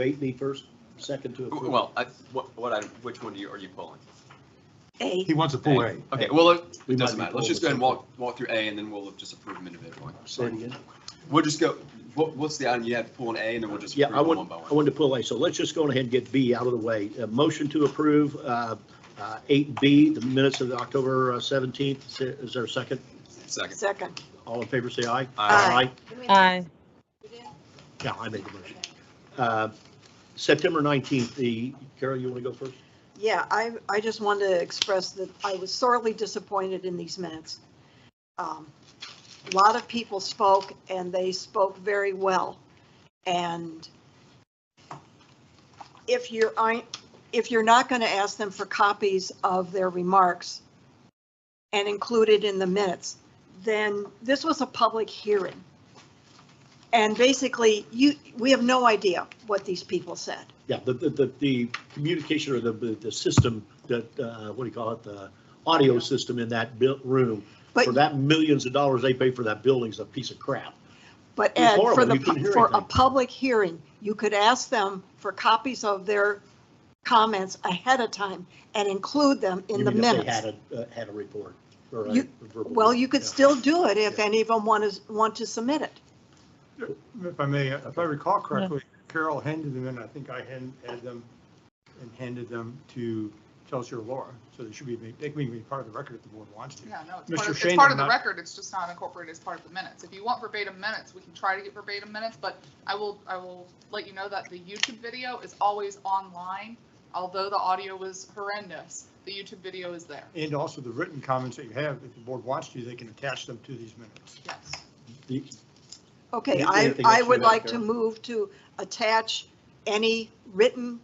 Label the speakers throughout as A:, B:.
A: Eight be first, second to approve.
B: Well, I, what, what I, which one do you, are you pulling?
C: A.
D: He wants to pull A.
B: Okay, well, it
A: We might
B: doesn't
A: be
B: matter. Let's just go ahead and
A: pulling
B: walk, walk through A and then we'll just approve them individually.
A: Say it again.
B: We'll just go, what, what's the item? You have to pull an A and then we'll just
A: Yeah,
B: approve
A: I
B: them
A: want,
B: one by
A: I
B: one.
A: wanted to pull A, so let's just go ahead and get B out of the way. A motion to approve uh, uh, 8B, the minutes of October uh, 17th. Is there- Is there a second?
B: Second. Uh,
C: Second.
A: All in favor, say aye.
C: Aye.
E: Aye.
A: Yeah, I made the motion. Uh, September 19th, the, Carol, you want to go first?
C: Yeah, I, I just wanted to express that I was sorely disappointed in these minutes. Um, A lot of people spoke and they spoke very well. And if you're, I, if you're not going to ask them for copies of their remarks and include it in the minutes, then this was a public hearing. And basically, you, we have no idea what these people said.
A: Yeah, the, the- the, the communication or the, the the system that, uh, what do you call it, the audio system in that built room,
C: But
A: for that millions of dollars they pay for that building's a piece of crap.
C: But
A: It was
C: Ed, for
A: horrible.
C: the,
A: You couldn't
C: pu-
A: hear
C: for a
A: anything.
C: public hearing, you could ask them for copies of their comments ahead of time and include them in
A: You
C: the
A: mean if they
C: minutes.
A: Had a, uh, had a report or a.
C: You-
A: verbal-
C: Well, you could
A: Yeah.
C: still do it if
A: Yeah.
C: any of them want to, want to submit it.
D: If I may, if I recall correctly, Carol handed them, and I think I hand- had them and handed them to Chelsea or Laura, so they should be, made- they can be part of the record if the board wants to.
F: Yeah, no, it's part
D: Mr.
F: of, it's
D: Shane
F: part
D: did
F: of the
D: not-
F: record, it's just not incorporated as part of the minutes. If you want verbatim minutes, we can try to get verbatim minutes, but I will, I will let you know that the YouTube video is always online. Although the audio was horrendous, the YouTube video is there,
D: And also the written comments that you have, if the board wants to, they can attach them to these minutes.
F: yes.
A: The-
C: Okay,
A: Yeah,
C: I,
A: anything
C: I
A: else you
C: would
A: have,
C: like to
A: Carol?
C: move to attach any written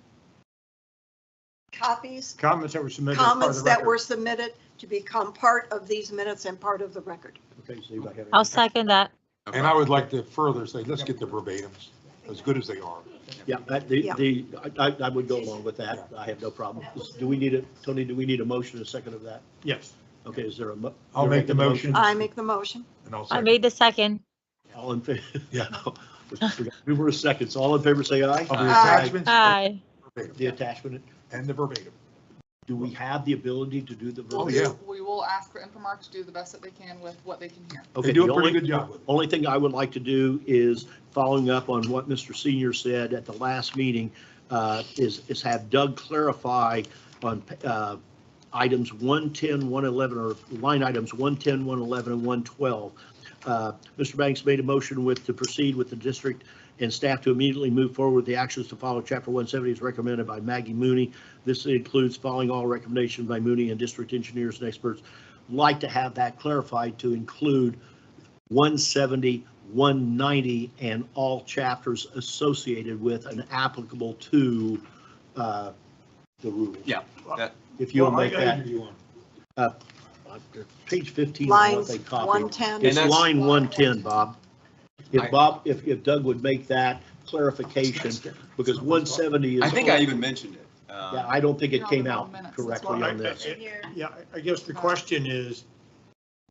C: copies,
D: Comments that were submitted as part of
C: comments
D: the
C: that were
D: record.
C: submitted to become part of these minutes and part of the record.
A: Okay, so anybody have
E: I'll
A: anything?
E: second that.
G: And I would like to further say, let's get the verbatims, as good as they are.
A: Yeah, I- the,
C: Yeah.
A: the, I, I- I would go along with that. I have no problem. Do we need a, Tony, do we need a motion, a second of that?
D: Yes.
A: Okay, is there a? mo-
D: I'll
A: you're
D: make the
A: making a
D: motion.
C: I make the motion.
G: And I'll
E: I
G: second.
E: made the second.
A: All in favor?
G: Yeah.
A: Numerous seconds. All in favor, say aye.
G: Of the
B: Aye.
C: Uh,
G: attachments
E: Aye.
A: The
G: verbatim,
A: attachment,
G: and the verbatim.
A: do we have the ability to do the?
F: We'll
D: Oh,
A: verbal?
G: Oh, yeah.
F: do- We will ask for Infomark to do the best that they can with what they can hear.
A: Okay,
G: They do
A: the
G: a pretty
A: only-
G: good job with it.
A: Only thing I would like to do is following up on what Mr. Senior said at the last meeting, uh, is, is have Doug clarify on uh, items 110, 111, or line items 110, 111, and 112. Uh, Mr. Banks made a motion with, to proceed with the district and staff to immediately move forward with the actions to follow. Chapter 170 is recommended by Maggie Mooney. This includes following all recommendations by Mooney and district engineers and experts. Like to have that clarified to include 170, 190, and all chapters associated with and applicable to uh, the rule.
B: Yeah, that-
A: If you'll
D: Well, I-
A: make
D: I
A: that,
D: give you one.
A: uh, uh, page 15 on what
C: Lines
A: they copied.
C: 110.
A: It's
B: And that's-
A: line 110, Bob. If
B: I-
A: Bob, if if Doug would make that clarification, because 170 is.
B: I think I even mentioned it. Um,
A: Yeah, I don't think it
F: You're on
A: came
F: the wrong
A: out
F: minutes, that's
A: correctly
D: why.
A: on this.
D: Yeah, I I guess the question is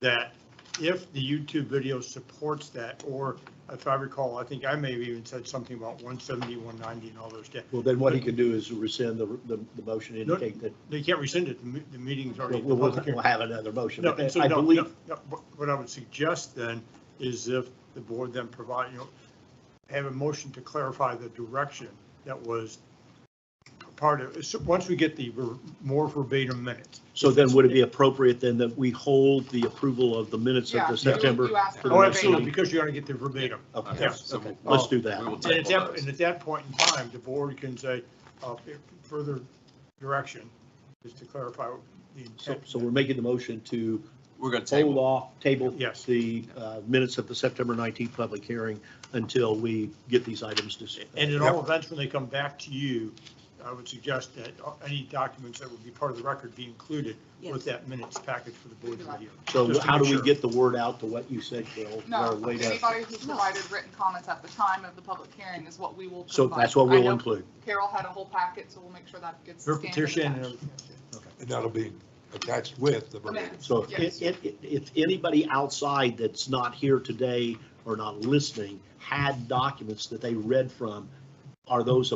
D: that if the YouTube video supports that, or if I recall, I think I may have even said something about 170, 190 and all those. da-
A: Well, then what he can do is rescind the, the the motion,
D: No,
A: indicate that
D: They can't rescind it, the me- the meeting's already.
A: we'll, we'll
D: public hearing.
A: we'll have another motion.
D: No, and so
A: I
D: no,
A: believe,
D: no, no, what- what I would suggest then is if the board then provide, you know, have a motion to clarify the direction that was part of, so once we get the ver- more verbatim minutes.
A: So then would it be appropriate then that we hold the approval of the minutes
F: Yeah,
A: of
F: you-
A: the September?
F: you asked for
A: the
D: Oh,
A: next
D: absolutely,
A: meeting?
D: because you're going to get the verbatim.
A: Okay,
B: Yeah,
A: okay,
B: so we'll-
A: let's do that.
B: We will
D: And at
B: table
D: that,
B: those.
D: and at that point in time, the board can say, uh, if further direction is to clarify the
A: So,
D: intent.
A: so we're making the motion to
B: We're going to
A: hold
B: table.
A: off, table
D: Yes.
A: the uh, minutes of the September 19th public hearing until we get these items to.
D: And in all events, when they come back to you, I would suggest that uh, any documents that would be part of the record be included with
C: Yes.
D: that minutes package for the board to review.
A: So
D: just to
A: how do
D: make
A: we
D: sure.
A: get the word out to what you said, Carol?
F: No,
A: Or wait a-
F: anybody who provided written comments at the time of the public hearing is what we will provide.
A: So that's what
F: I
A: we'll
F: know
A: include.
F: Carol had a whole packet, so we'll make sure that gets
D: Her
F: scanned. and
D: petition and
F: attached.
D: everything.
G: And that'll be attached with the verbatim.
F: Okay.
A: So if, if, if anybody outside that's not here today or not listening had documents that they read from, are those